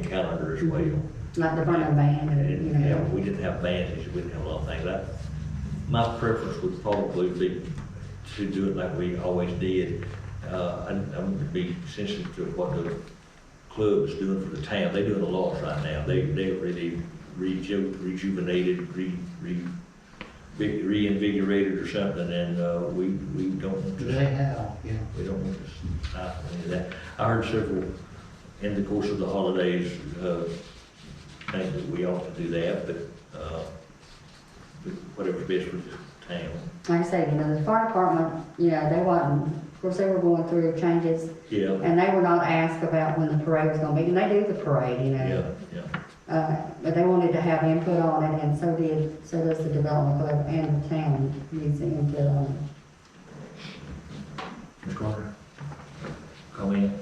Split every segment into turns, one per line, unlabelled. as well.
like the burner ban or, you
And, yeah,
know.
we didn't have bands, we didn't have a lot of things. I- My preference would probably be to do it like we always did. Uh, and I'm gonna be sensitive to what the club is doing for the town. They're doing a lot right now. They, they're really reju- rejuvenated, re, re, re- reinvigorated or something, and, uh, we, we don't just
They have, yeah.
we don't want to stop any of that. I heard several, in the course of the holidays, uh, think that we ought to do that, but, uh, but whatever's best for the town.
Like I say, you know, the fire department, you know, they wasn't, of course, they were going through changes
Yeah,
and they were not asked about when the parade was gonna be, and they do the parade, you know.
yeah, yeah.
Uh, but they wanted to have input on it and so did, so does the development club and the town needs the input on it.
Ms. Carter? Comment?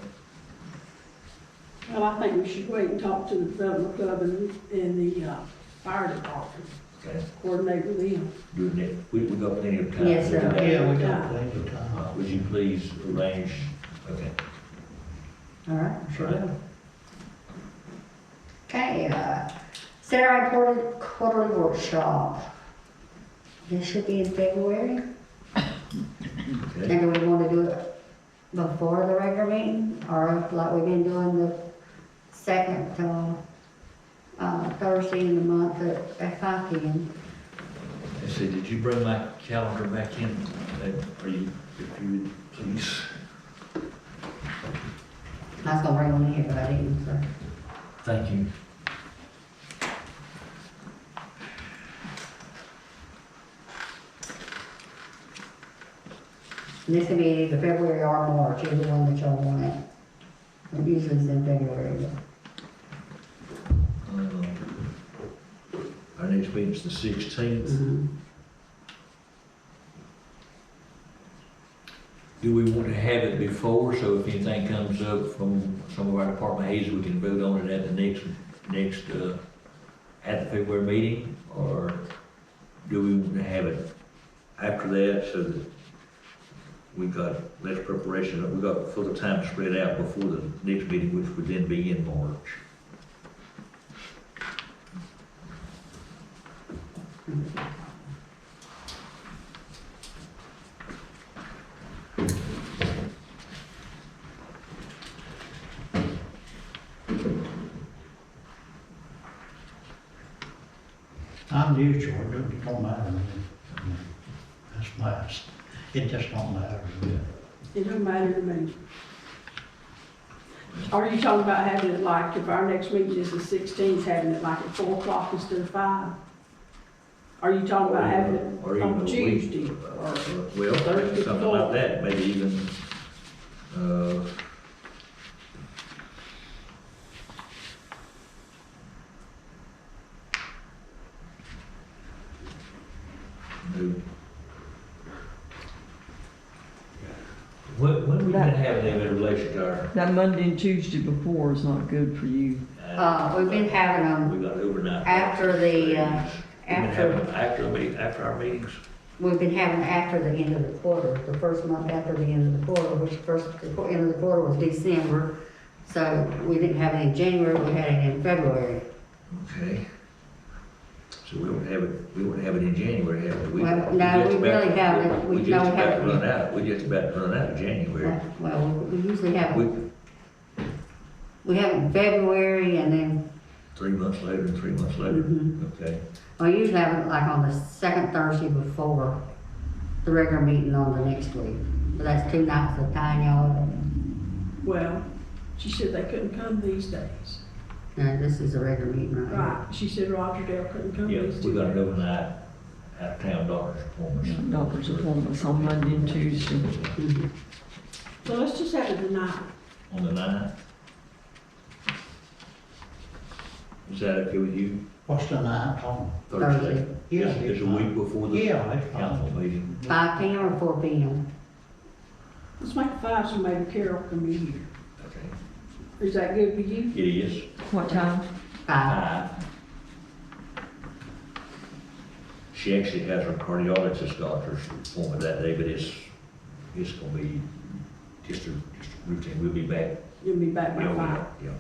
Well, I think we should wait and talk to the development club and, and the, uh, fire department,
Okay,
coordinate with them.
doing it, we, we got plenty of time.
Yes,
to do
sir.
that.
Yeah, we got plenty of time.
Uh, Would you please arrange, okay,
All right, sure
Right.
will. Okay, uh, Saturday quarterly, quarterly workshop. This should be in February,
okay.
and do we wanna do it before the regular meeting, or like we've been doing the second, uh, uh, Thursday in the month at, at five P M?
I said, did you bring my calendar back in? Uh, Are you, if you would, please?
I was gonna bring one in here, but I didn't, so.
Thank you.
And This will be either February or March, either one that y'all want it. It Usually it's in February, but-
Um, Our next meeting's the sixteenth. Do we want to have it before, so if anything comes up from some of our department heads, we can vote on it at the next, next, uh, at the February meeting? Or do we want to have it after that, so that we got less preparation, we got full time spread out before the next meeting, which would then be in March?
I'm neutral, it don't- don't matter to me. That's nice. It just don't matter to me.
It don't matter to me. Are you talking about having it like, if our next meeting is the sixteenth, having it like at four o'clock instead of five? Are you talking about having
Or
it
even a
on
week.
Tuesday?
Uh,
or-
Well,
Thursday,
something like
Friday.
that, maybe even, uh, do- When, when we gonna have them in relation to our?
That Monday and Tuesday before is not good for you.
Uh, we've been having them,
We got overnight.
after the, uh,
meetings. We've been
after-
having them After, the meet- after our meetings.
we've been having after the end of the quarter, the first month after the end of the quarter, which first, the qu- end of the quarter was December. So we didn't have it in January, we had it in February.
Okay. So we don't have it, we don't have it in January, have we? We-
Well,
we
no,
just
we
about-
really haven't. We
just
don't
about
have it.
Run out, we just about run out of January.
Well, we usually have,
We,
it- we have it in February and then,
three months later, and three months later,
Mhm.
okay.
we usually have it like on the second Thursday before the regular meeting on the next week. But that's two nights of time, y'all.
Well, she said they couldn't come these days.
No, this is a regular meeting right here.
Right, she said Roger Dale couldn't come
Yeah,
these
we
two
got an
days.
overnight out-of-town doctor's appointment.
Doctor's appointments on Monday and Tuesday.
So let's just have it tonight.
Mm-hmm.
On the ninth. Is that okay with you?
What's the night on?
Thursday.
Yeah,
It's it's a
it's
week
fine.
before the
Yeah, it's
council
fine.
meeting.
Five P M or four P M?
Let's make it five so maybe Carol can be here.
Okay.
Is that good for you?
It is
What time?
Five.
five. She actually has her cardiologist doctor's appointment that day, but it's, it's gonna be just a, just a routine, we'll be back.
You'll be back
Yeah,
by
we
five.
are, yeah.